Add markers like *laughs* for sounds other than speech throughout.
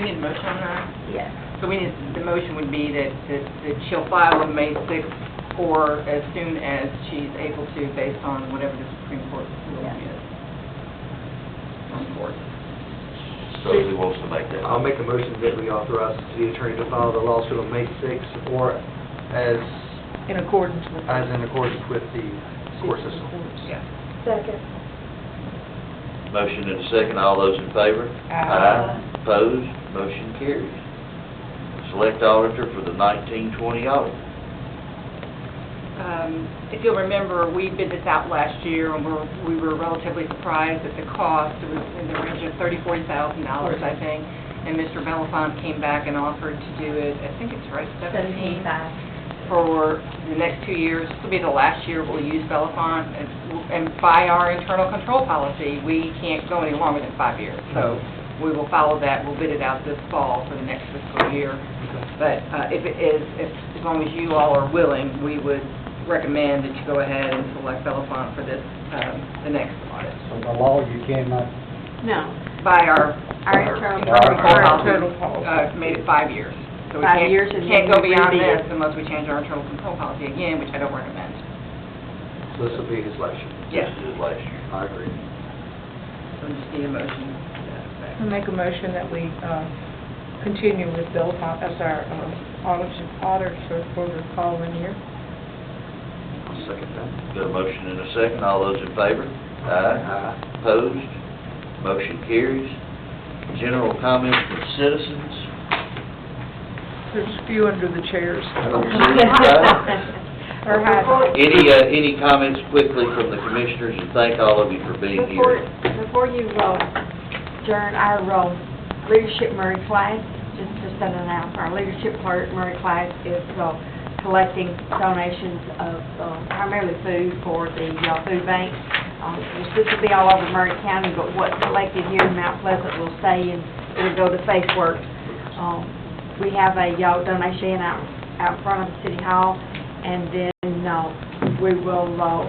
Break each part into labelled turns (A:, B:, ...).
A: motion on that?
B: Yes.
A: So we need, the motion would be that, that that she'll file on May 6th or as soon as she's able to, based on whatever the Supreme Court ruling
B: Yeah.
A: is. On court.
C: So who wants to make that?
D: I'll make a motion that we authorize the city attorney to file the lawsuit on May 6th or as,
B: In accordance with.
D: as in accordance with the court system.
A: Yeah.
E: Second.
C: Motion and a second, all those in favor?
B: Aye.
C: Opposed, motion carries. Select auditor for the 1920 audit.
A: Um, If you'll remember, we bid this out last year, and we're- we were relatively surprised at the cost. It was in the range of $30,000-$40,000, I think. And Mr. Belafonte came back and offered to do it, I think it's right, 17 for the next two years. This will be the last year we'll use Belafonte. And- And by our internal control policy, we can't go any longer than five years. So we will follow that. We'll bid it out this fall for the next fiscal year. But uh, if it is, if, as long as you all are willing, we would recommend that you go ahead and select Belafonte for this, um, the next audit.
F: So by law, you cannot,
B: No.
A: By our,
B: Our
A: internal
B: internal-
F: our
A: control
B: internal
A: policy,
B: policy.
A: uh, made it five years. So we
B: Five
A: can't-
B: years and
A: Can't
B: then
A: go
B: we
A: beyond
B: rebid
A: this
B: it.
A: unless we change our internal control policy again, which I don't recommend.
D: So this will be his last year.
A: Yes.
C: This is last year.
D: I agree.
A: So we just need a motion to that effect.
G: I make a motion that we uh, continue with Bill, Fo- as our um, auditor auditor for the following year.
D: I'll second that.
C: Got a motion and a second, all those in favor?
D: Aye.
C: Opposed, motion carries. General comments from citizens.
G: There's a few under the chairs. *laughs*
E: *laughs*
G: Or hide.
E: Before-
C: Any, uh, any comments quickly from the commissioners, and thank all of you for being
E: Before,
C: here.
E: before you uh, adjourn our uh, leadership Murray Clyde, just to set an announcement, our leadership part, Murray Clyde is uh, collecting donations of uh, primarily food for the uh, food bank. Um, This will be all over Murray County, but what's collected here in Mount Pleasant will stay and it'll go to Faith Works. Um, We have a uh, donation out, out front of City Hall, and then uh, we will uh,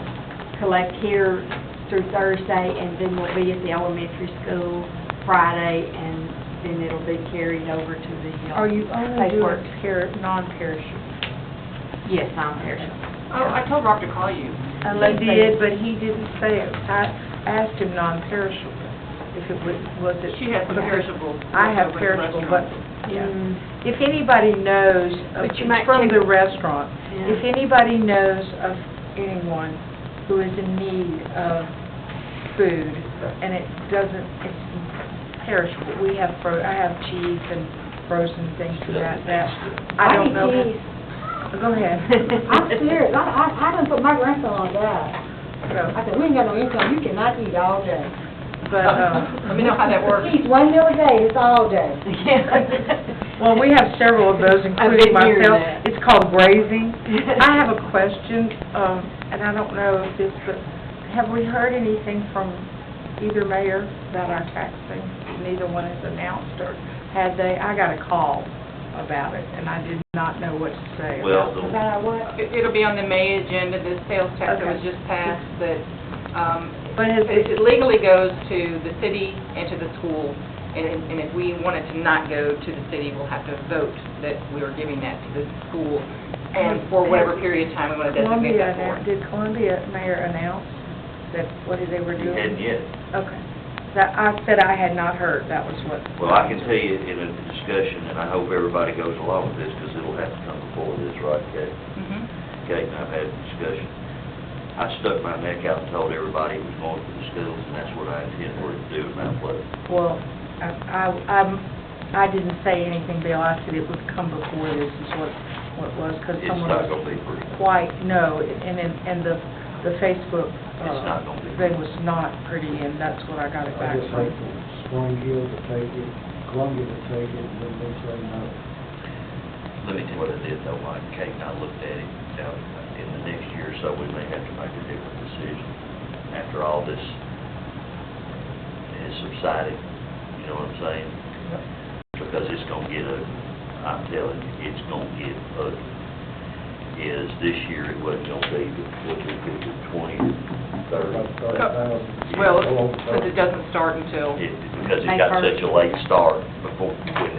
E: collect here through Thursday, and then we'll be at the elementary school Friday, and then it'll be carried over to the... uh,
G: Are you only
E: Safe Works.
G: doing peri- non-perishable?
E: Yes, non-perishable.
A: Oh, I told Rob to call you.
E: Unless
G: He did,
E: they-
G: but he didn't say it. I asked him non-perishable, if it was, was it...
A: She has some perishable.
G: I have
A: leftover
G: perishable, but,
A: restaurants.
G: yeah.
E: Mm,
G: If anybody knows, of-
E: But you
G: it's
E: might
G: from
E: take-
G: the restaurant, if
E: yeah.
G: anybody knows of anyone who is in need of food, and it doesn't, it's perishable, we have, fro I have cheese and frozen things and that, that, I don't know. Go ahead.
H: I'm serious, I, I, I done put my grandson on diet. I
G: So,
H: said, we ain't got no income, you cannot eat all day.
G: But,
A: *laughs*
G: um,
A: Let me know how that
G: *laughs*
A: works.
H: Eat one meal a day, it's all day. *laughs*
G: um, well, we have several of those,
E: I've been
G: including
E: hearing
G: myself.
E: that.
G: It's called
E: *laughs*
G: grazing. I have a question, um, and I don't know if this, but have we heard anything from either mayor about our taxing? Neither one has announced or had they, I got a call about it, and I did not know what to say
C: Well,
G: about it.
C: the-
H: About what?
A: It- It'll be on the May agenda, this sales tax that was
G: Okay.
A: just passed, that, um,
G: But has,
A: it it legally goes to the city and to the school, and and if we want it to not go to the city, we'll have to vote that we are giving that to the school, and for whatever period of time we want to designate
G: Columbia,
A: that
G: annou-
A: for.
G: did Columbia mayor announce that what they were
C: You hadn't
G: doing?
C: yet.
G: Okay. That, I said I had not heard, that was what.
C: Well, I can tell you in a discussion, and I hope everybody goes along with this, because it'll have to come before this, right, Kate?
A: Mhm.
C: Kate and I've had a discussion. I stuck my neck out and told everybody who's going to the schools, and that's what I intend we're to do in Mount Pleasant.
G: Well, I, I- I'm, I didn't say anything, Bill, I said it would come before this is what, what it was, because
C: It's
G: someone
C: not
G: was
C: gonna be free.
G: quite, no, and, and and the, the Facebook,
C: It's
G: uh,
C: not gonna be free.
G: thing was not pretty, and that's what I got it
F: I
G: back
F: just
G: from.
F: hate for Springfield to take it, Columbia to take it, and then they say no.
C: Let me tell you what I did though, Mike, Kate and I looked at it, now, in the next year or so, we may have to make a different decision after all this has subsided, you know what I'm saying? Because it's gonna get ugly, I'm telling you, it's gonna get ugly. Is this year it wasn't gonna be, the what we could do, twenty, thirty.
F: About thirty thousand.
A: Well,
F: Go over
A: because it doesn't start until...
C: It- Because it
E: May
C: got
E: first.
C: such a late start before, when